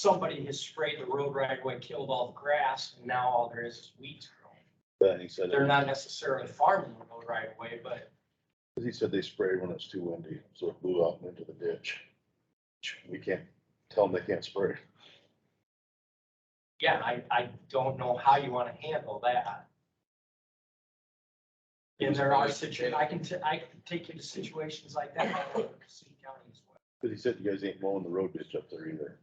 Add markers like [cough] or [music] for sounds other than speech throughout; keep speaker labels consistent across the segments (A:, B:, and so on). A: somebody has sprayed the road right away, killed all the grass, and now all there is is weeds growing.
B: But he said,
A: They're not necessarily farming the road right away, but
B: he said they sprayed when it's too windy, so it blew out and into the ditch. We can't tell them they can't spray.
A: yeah, I, I don't know how you wanna handle that. And there are situations, I can, ta- I can take you to situations like that, I work in City County as well.
B: Cause he said you guys ain't mowing the road ditch up there either.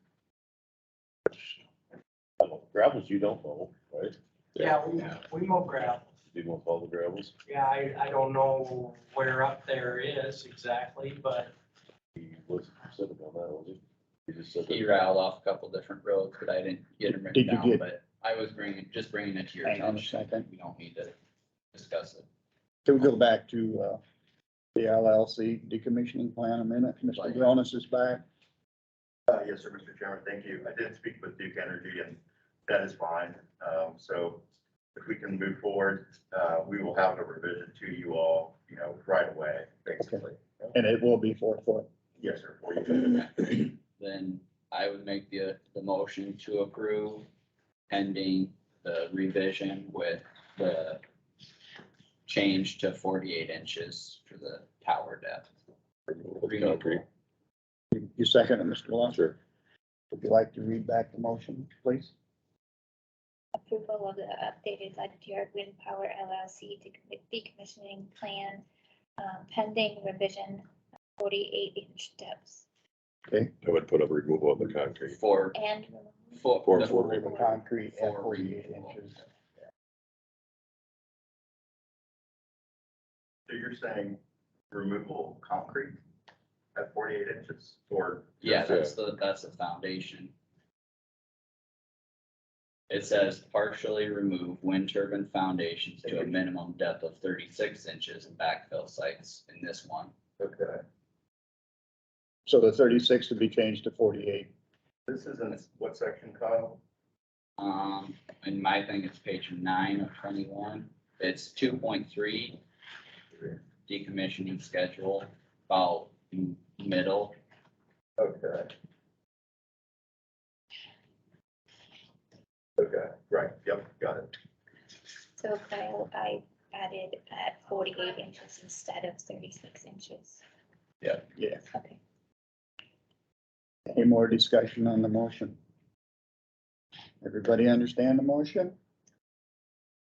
B: I don't- Gravels you don't mow, right?
A: Yeah, we, we mow gravel.
B: You won't all the gravels.
A: Yeah, I, I don't know where up there is exactly, but
B: He wasn't specific on that, was he? He just said. that-
C: He rattled off a couple different roads, but I didn't get them written
D: Did you
C: down,
D: get-
C: but I was bringing, just bringing it to your
D: Hang on a
C: attention.
D: second.
C: We don't need to discuss it.
D: Can we go back to, uh, the LLC decommissioning plan a minute? Mr.
C: Right.
D: Gronis is back.
E: Uh, yes, sir, Mr. Chairman, thank you. I did speak with Duke Energy and that is fine. Um, so if we can move forward, uh, we will have a revision to you all, you know, right away, basically.
D: And it will be four foot.
E: Yes, sir, for you.
C: [clears throat] Then I would make the, the motion to approve pending the revision with the change to forty-eight inches for the tower depth.
B: Concrete.
D: You- You second it, Mr. Lawson?
B: Sure.
D: Would you like to read back the motion, please?
F: approval of the updated Ledyard Wind Power LLC decom- decommissioning plan um, pending revision of forty-eight inch steps
G: I would put up removal of the concrete.
C: For,
F: and
C: for.
G: For-
C: the-
G: for
D: The concrete at
C: for
D: forty-eight
C: removal.
D: inches.
E: So you're saying removal of concrete at forty-eight inches or?
C: Yeah, that's the, that's the foundation. It says partially remove wind turbine foundations to a minimum depth of thirty-six inches and backfill sites in this one.
E: Okay,
D: So the thirty-six would be changed to forty-eight.
E: this is in what section, Kyle?
C: Um, in my thing, it's page nine of twenty-one, it's two point three decommissioning schedule, about m- middle.
E: Okay. Okay, right, yep, got it.
F: so Kyle, I added at forty-eight inches instead of thirty-six inches.
D: Yeah.
F: Okay.
D: Any more discussion on the motion? Everybody understand the motion?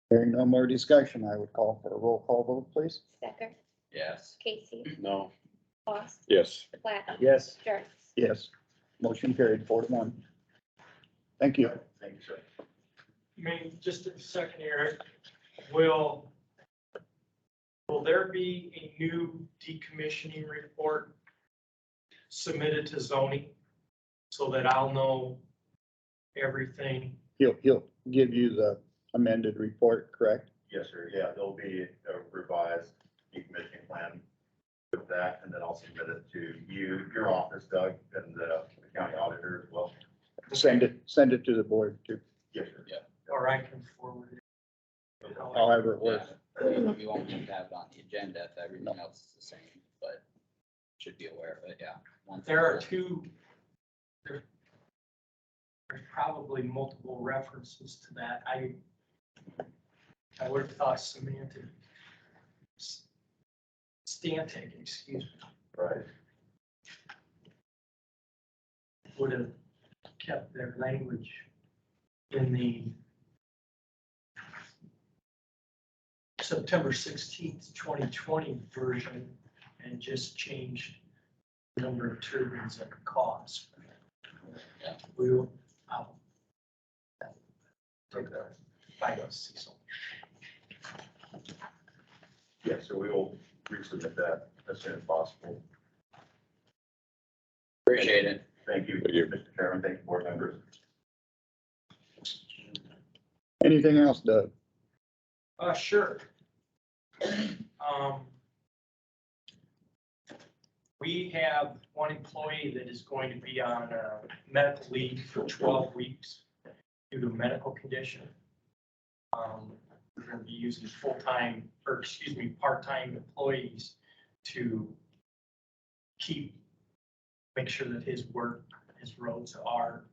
D: Hearing no more discussion, I would call for a roll call vote, please.
F: Stecker,
C: Yes,
F: Casey,
B: No.
F: Foss,
G: Yes.
F: Platt,
D: Yes.
F: Jarvis.
D: Yes. Motion carried four to one. Thank you.
E: Thank you, sir.
A: I mean, just a second here, will, will there be a new decommissioning report submitted to zoning so that I'll know everything?
D: He'll, he'll give you the amended report, correct?
E: Yes, sir. Yeah, there'll be a revised decommissioning plan with that, and then I'll submit it to you, your office, Doug, and the county auditor as well.
D: Send it, send it to the board to,
E: Yes, sir.
A: Or I can forward it.
D: however it
C: yeah,
D: works.
C: you you Uh, won't have to have it on the agenda if everything else is the same, but should be aware of it, yeah. Once-
A: There are two, there, there's probably multiple references to that. I, I would have thought semantic. Stantic, excuse me,
E: Right.
A: would have kept their language in the September sixteenth, twenty twenty version and just changed the number of turbines that could cause.
C: Yeah.
A: We will, I'll
E: Okay.
A: find out, see something.
E: Yeah, so we will resubmit that as soon as possible.
C: Appreciate it.
E: Thank you,
G: Thank you.
E: Mr. Chairman. Thank you, board members.
D: Anything else, Doug?
A: Uh, sure. Um, We have one employee that is going to be on uh, medical leave for twelve weeks due to a medical condition. Um, We're going to be using full-time, or excuse me, part-time employees to keep, make sure that his work, his roads are